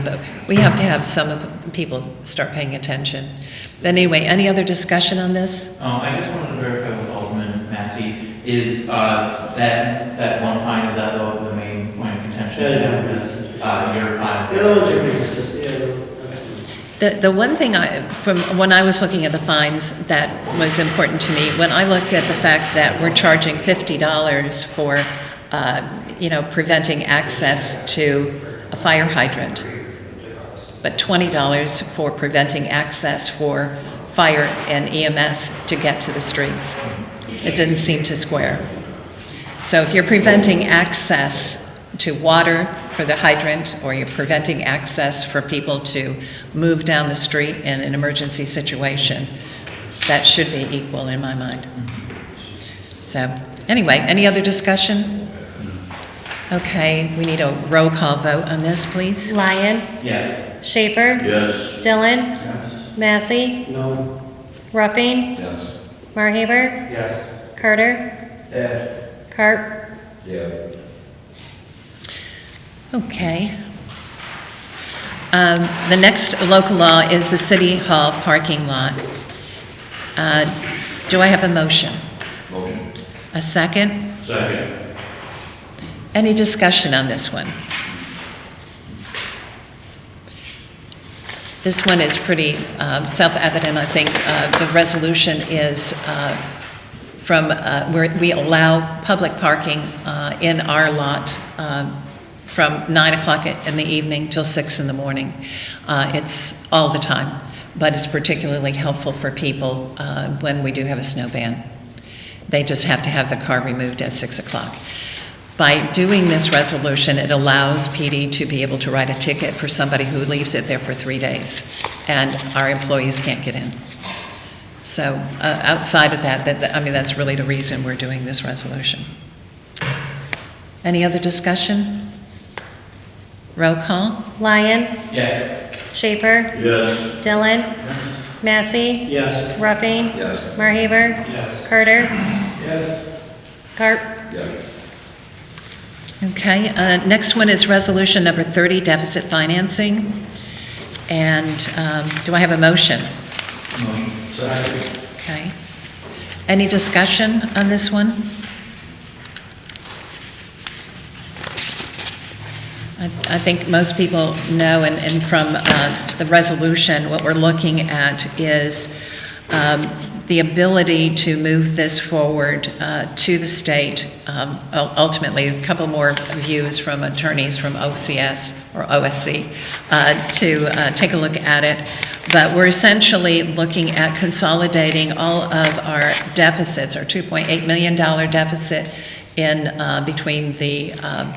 But we have to have some of the people start paying attention. But anyway, any other discussion on this? Um, I just wanted to verify with Alderman Massey, is, uh, that, that one fine, is that the, the main point of contention? Yeah, that yeah. was, Uh, your fine? The, the one thing I, from when I was looking at the fines, that was important to me, when I looked at the fact that we're charging $50 for, uh, you know, preventing access to a fire hydrant, but $20 for preventing access for fire and EMS to get to the streets. It didn't seem to square. So if you're preventing access to water for the hydrant, or you're preventing access for people to move down the street in an emergency situation, that should be equal in my mind. So, anyway, any other discussion? Okay, we need a roll call vote on this, please. Lyon. Yes. Schaefer. Yes. Dillon. Massey. No. Ruffing. Yes. Marhaber. Yes. Carter. Yes. Carp. Yeah. Okay. Um, The next local law is the City Hall parking lot. Uh, Do I have a motion? Motion. A second? Second. Any discussion on this one? This one is pretty um, self-evident, I think. Uh, The resolution is uh, from, uh, where we allow public parking uh, in our lot um, from 9 o'clock in the evening till 6 in the morning. Uh, It's all the time, but it's particularly helpful for people uh, when we do have a snow ban. They just have to have the car removed at 6 o'clock. By doing this resolution, it allows PD to be able to write a ticket for somebody who leaves it there for three days, and our employees can't get in. So uh, outside of that, that, that- I mean, that's really the reason we're doing this resolution. Any other discussion? Roll call? Lyon. Yes. Schaefer. Yes. Dillon. Massey. Yes. Ruffing. Yes. Marhaber. Yes. Carter. Yes. Carp. Yes. Okay, uh, next one is resolution number 30, deficit financing. And um, do I have a motion? Motion. Second. Okay. Any discussion on this one? I I think most people know, and and from uh, the resolution, what we're looking at is um, the ability to move this forward uh, to the state. Um, ul- Ultimately, a couple more views from attorneys from OCS or OSC uh, to uh, take a look at it. But we're essentially looking at consolidating all of our deficits, our $2.8 million deficit in, uh, between the um,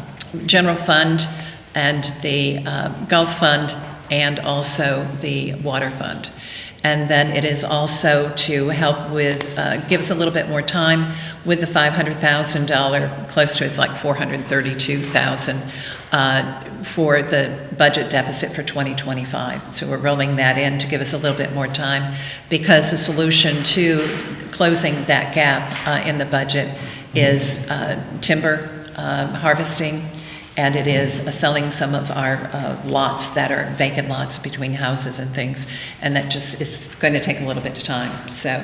general fund and the uh, Gulf Fund and also the water fund. And then it is also to help with, uh, give us a little bit more time with the $500,000, close to, it's like $432,000 uh, for the budget deficit for 2025. So we're rolling that in to give us a little bit more time because the solution to closing that gap uh, in the budget is uh, timber um, harvesting, and it is uh, selling some of our uh, lots that are vacant lots between houses and things, and that just, it's going to take a little bit of time. So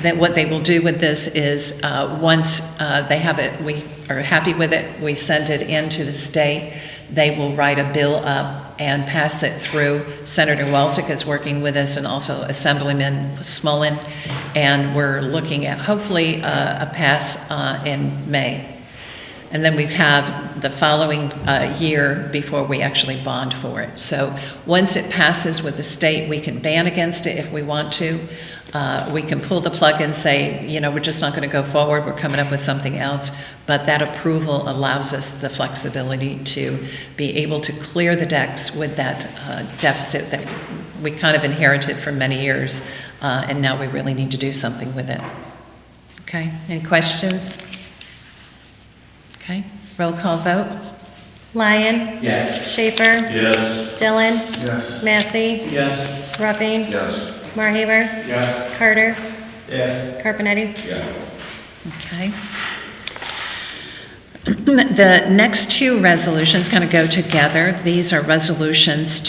that what they will do with this is, uh, once uh, they have it, we are happy with it, we send it into the state, they will write a bill up and pass it through. Senator Welzick is working with us, and also Assemblyman Smolin, and we're looking at hopefully uh, a pass uh, in May. And then we have the following uh, year before we actually bond for it. So once it passes with the state, we can ban against it if we want to. Uh, We can pull the plug and say, you know, we're just not going to go forward, we're coming up with something else. But that approval allows us the flexibility to be able to clear the decks with that uh, deficit that we kind of inherited for many years, uh, and now we really need to do something with it. Okay, any questions? Okay, roll call vote? Lyon. Yes. Schaefer. Yes. Dillon. Yes. Massey. Yes. Ruffing. Yes. Marhaber. Yes. Carter. Yes. Carpenetti. Yeah. Okay. The next two resolutions kind of go together. These are resolutions